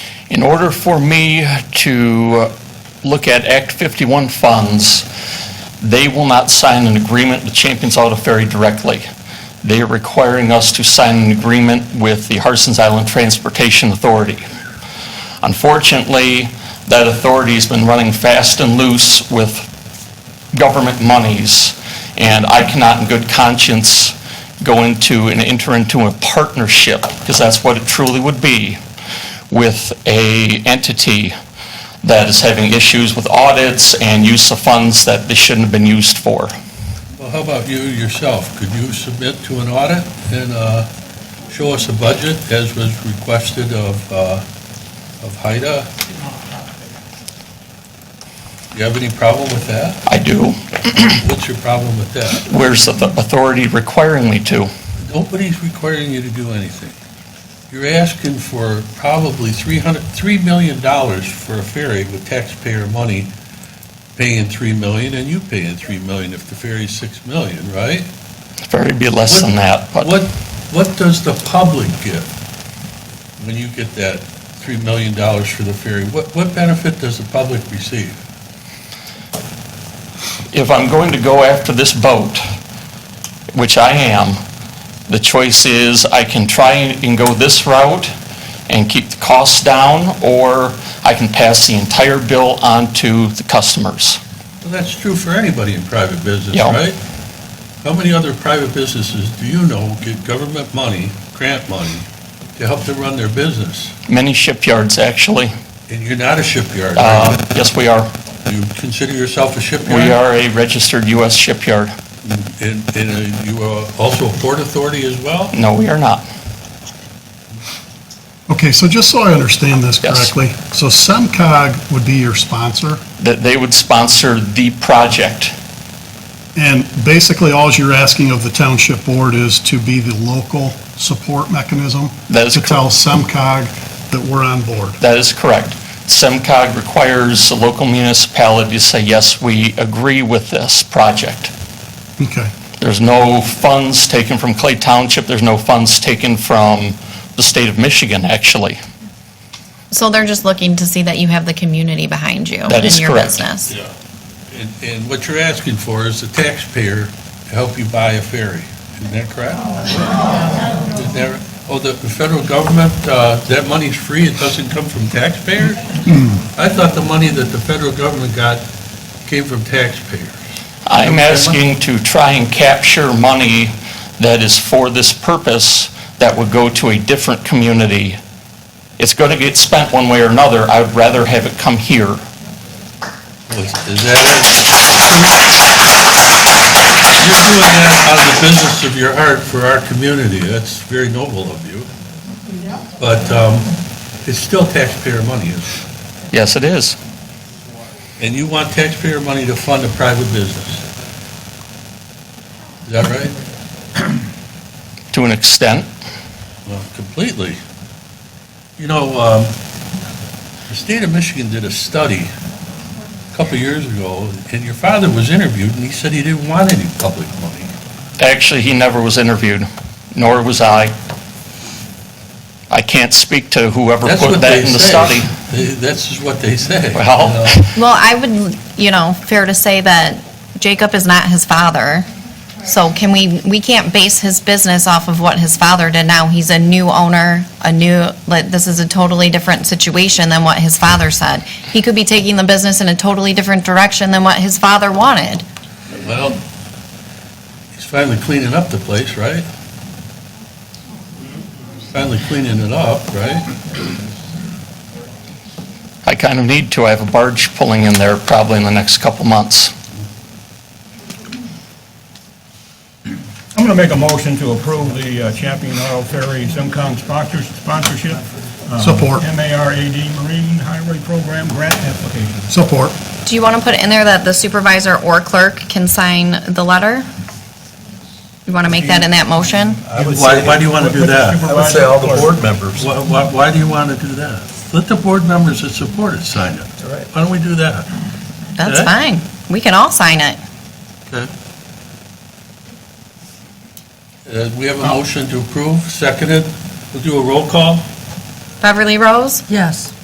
In order for me to uh, look at Act 51 funds, they will not sign an agreement with Champions Auto Ferry directly. They are requiring us to sign an agreement with the Harson's Island Transportation Authority. Unfortunately, that authority's been running fast and loose with government monies, and I cannot in good conscience go into and enter into a partnership, because that's what it truly would be, with a entity that is having issues with audits and use of funds that they shouldn't have been used for. Well, how about you yourself? Could you submit to an audit and uh, show us a budget as was requested of uh, of HIDA? Do you have any problem with that? I do. What's your problem with that? Where's the authority requiring me to? Nobody's requiring you to do anything. You're asking for probably 300, $3 million for a ferry with taxpayer money paying 3 million and you paying 3 million if the ferry's 6 million, right? Ferry be less than that, but What, what does the public get when you get that $3 million for the ferry? What, what benefit does the public receive? if I'm going to go after this boat, which I am, the choice is I can try and go this route and keep the costs down, or I can pass the entire bill on to the customers. Well, that's true for anybody in private business, Yeah. right? How many other private businesses do you know get government money, grant money, to help them run their business? Many shipyards, actually. And you're not a shipyard, Uh, right? Yes, we are. Do you consider yourself a shipyard? We are a registered U.S. shipyard. And, and uh, you are also a port authority as well? No, we are not. Okay, so just so I understand this Yes. correctly, so SEMCOG would be your sponsor, That they would sponsor the project. and basically all you're asking of the township board is to be the local support mechanism? That is To tell correct. SEMCOG that we're on board. That is correct. SEMCOG requires the local municipality to say, yes, we agree with this project. Okay, There's no funds taken from Clay Township, there's no funds taken from the state of Michigan, actually. So they're just looking to see that you have the community behind you That is in your correct. business. And, and what you're asking for is the taxpayer to help you buy a ferry, isn't that correct? Is there, oh, the the federal government, uh, that money's free, it doesn't come from taxpayers? I thought the money that the federal government got came from taxpayers. I'm asking to try and capture money that is for this purpose that would go to a different community. It's going to get spent one way or another, I would rather have it come here. Was- Is that it? You're doing that out of the business of your heart for our community, that's very noble of you. But um, it's still taxpayer money, isn't it? Yes, it is. And you want taxpayer money to fund a private business? Is that right? To an extent, Well, completely. You know, um, the state of Michigan did a study a couple of years ago, and your father was interviewed, and he said he didn't want any public money. actually, he never was interviewed, nor was I. I can't speak to whoever That's put what that they in the say. study. They- That's just what they say. Well- you know. Well, I would, you know, fair to say that Jacob is not his father. So can we, we can't base his business off of what his father did now. He's a new owner, a new, like, this is a totally different situation than what his father said. He could be taking the business in a totally different direction than what his father wanted. Well, he's finally cleaning up the place, right? Finally cleaning it up, right? I kind of need to. I have a barge pulling in there probably in the next couple months. I'm going to make a motion to approve the uh, Champion Auto Ferry SimCom sponsors- sponsorship. uh, Support. MARAD Marine Highway Program Grant Application. support. Do you want to put in there that the supervisor or clerk can sign the letter? You want to make that in that motion? I would Why, say- why do you want to do that? I would say all the board members. Why, why- why do you want to do that? Let the board members that support it sign it. right. Why don't we do that? That's Yeah. fine. We can all sign it. Uh, We have a motion to approve, seconded. We'll do a roll call. Beverly Rose? Yes.